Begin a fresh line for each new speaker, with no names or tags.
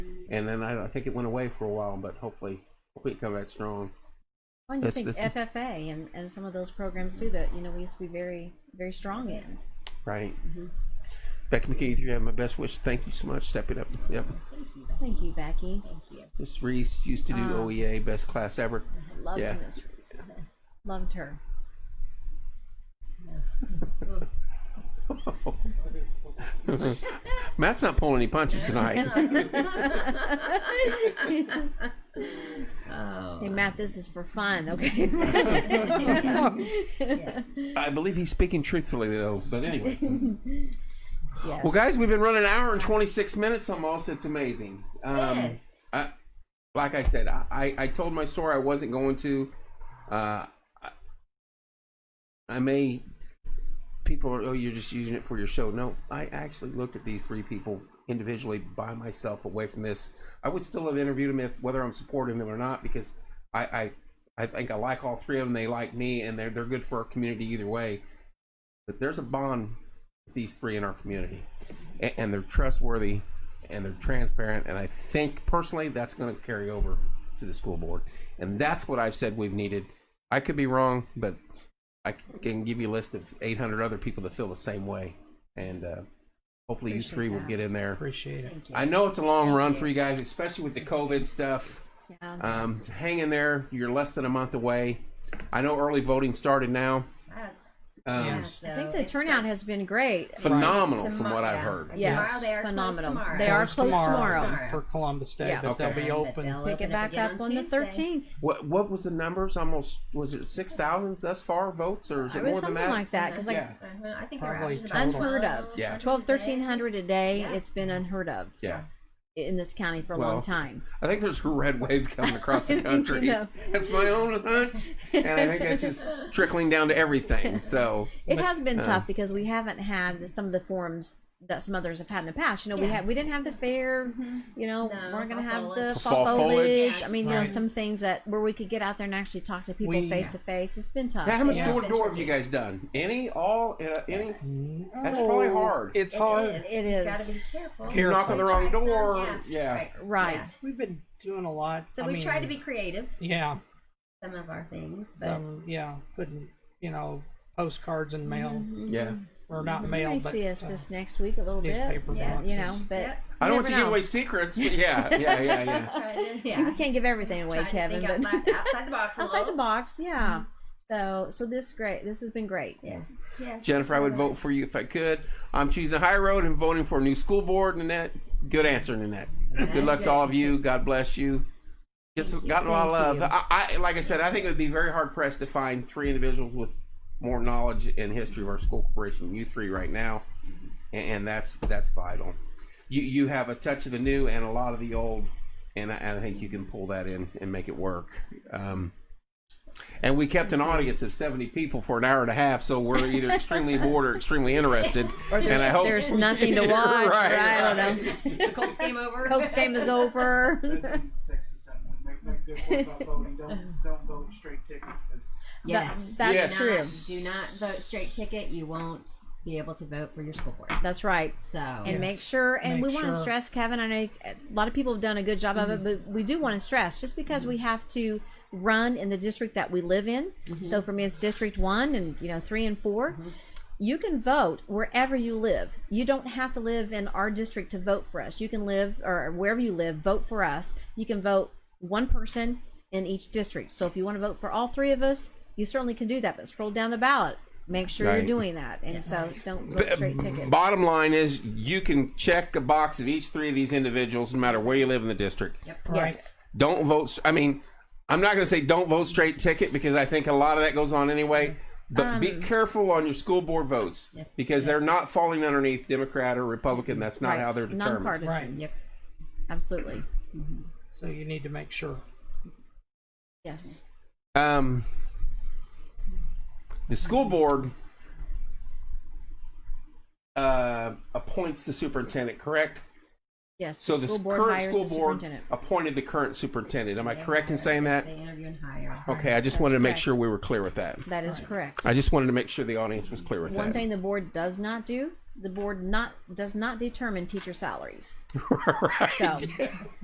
and then I, I think it went away for a while, but hopefully, hopefully it come back strong.
Well, and you
That's-
think
that's-
FFA and, and some of those programs too that you know we used to be very very strong in.
Right. Becky McKee, you have my best wish. Thank you so much. Step it up. Yep.
Thank you, Becky.
Miss Reese used to do
Ah.
OEA, best class ever.
Loved
Yeah.
Miss Reese. Loved her.
Matt's not pulling any punches tonight.
Hey Matt, this is for fun, okay?
I believe he's speaking truthfully though. But anyway,
yes.
well, guys, we've been running an hour and twenty six minutes almost. It's amazing. Um,
Yes.
I, like I said, I, I I told my story I wasn't going to. Uh, I, I may. People are, oh, you're just using it for your show. No, I actually looked at these three people individually by myself away from this. I would still have interviewed them if, whether I'm supporting them or not, because I, I, I think I like all three of them. They like me, and they're, they're good for our community either way. But there's a bond with these three in our community, and, and they're trustworthy and they're transparent. And I think personally that's going to carry over to the school board. And that's what I've said we've needed. I could be wrong, but I can give you a list of 800 other people that feel the same way. And uh, hopefully you
Appreciate
three will
that.
get in there.
Appreciate it.
I know it's a long run for you guys, especially with the COVID stuff.
Yeah.
Um, hang in there. You're less than a month away. I know early voting started now.
Yes.
Um,
Yeah.
I think the turnout has been great.
Phenomenal,
Tomo-
from what I've
yeah.
heard.
Yes,
Tomorrow they are closed
phenomenal.
tomorrow.
They are
Closed
closed tomorrow.
tomorrow.
For Columbus Day,
Yeah.
but they'll
Okay.
be open.
Pick it back up on the 13th.
What What was the numbers? Almost was it six thousand thus far votes, or is it
Or
more
something
than that?
like that. Because like
Yeah.
Uh-huh. I think
Probably
they're
that's
Total.
unheard of.
Yeah.
Twelve, thirteen hundred a day.
Yeah.
It's been unheard of
yeah,
in this county for a
Well,
long time.
I think there's a red wave coming across the
You
country.
know.
That's my own hunch, and I think that's just trickling down to everything. So
It has been
uh,
tough because we haven't had the- some of the forums that some others have had in the past. You know, we
Yeah. Mm-hmm.
had we didn't have the fair. You know,
No,
we're gonna
fall
have the
foliage.
fall
Fall
foliage.
foliage.
I mean, you know,
Right.
some things that where we could get out there and actually talk to people
We-
face to face. It's been tough.
how much
Yeah.
door to door have you guys done? Any, all, uh, any? That's
No,
probably hard.
Oh, It's
It
hard.
is.
It
You've
is.
got to be careful.
Care-
Knock on the wrong
Try some,
door.
Yeah.
yeah.
Right.
Right.
Yeah.
We've been doing a lot.
So
I
we
mean,
try to be creative.
Yeah,
Some of our things, but
some, yeah, putting, you know, postcards in mail,
Yeah.
or not
You
mail,
may
but.
see us
uh,
this next week a little bit.
newspaper
Yeah, You know,
boxes.
but
Yep.
I don't
you
want to
never
give
know.
away secrets, but yeah, yeah, yeah, yeah.
try to, yeah.
You can't give everything away,
Trying to
Kevin.
think
But
outside, outside the box. a
outside the
little.
box,
Mm-hmm.
yeah. So, so this great. This has been great.
Yes. Yes.
Jennifer, I would vote for you if I could. I'm choosing the high road and voting for a new school board, Nanette. Good answer, Nanette. Good luck to all of you. God bless you. Get some, gotten a lot of
Thank
love. I, I, like I said, I think it would be very hard pressed to find three individuals with more knowledge and history of our school corporation than you three right now, and, and that's that's vital. You you have a touch of the new and a lot of the old, and I, and I think you can pull that in and make it work. Um, and we kept an audience of 70 people for an hour and a half, so we're either extremely bored or extremely interested. and I hope
There's nothing to watch.
Right,
right, I don't know.
The Colts game over.
Colts game is over.
Texas, that one. Make, make good point about voting. Don't, don't vote straight ticket because
Yes.
That-
that's
Yes.
Do not vote straight ticket. You won't be able to vote for your school board.
That's right.
So
And make sure, and
Make
we want to
sure. Mm-hmm.
stress, Kevin. I know a lot of people have done a good job of it, but we do want to stress just because we have to run in the district that we live in.
Mm-hmm.
So for me, it's District One and you know three and 4 You can vote wherever you live. You don't have to live in our district to vote for us. You can live or wherever you live, vote for us. You can vote one person in each district. So if you want to vote for all three of us, you certainly can do that. But scroll down the ballot. Make sure
Right.
you're doing that, and so don't vote straight ticket.
Bottom line is, you can check the box of each three of these individuals, no matter where you live in the district.
right.
Yes.
Don't vote. I mean, I'm not going to say don't vote straight ticket because I think a lot of that goes on anyway. But be
Um,
careful on your school board votes because they're not falling underneath Democrat or Republican. That's not
Right.
how they're determined.
Nonpartisan.
Right.
Yep.
Absolutely.
So you need to make sure.
Yes.
um, the school board uh, appoints the superintendent, correct?
Yes.
So the current school board appointed the current superintendent. Am I correct in saying that?
They interview and hire.
Okay, I just wanted to make
correct.
sure we were clear with that.
That is correct.
I just wanted to make sure the audience was clear with
One
that.
thing the board does not do, the board not does not determine teacher salaries.
right.
So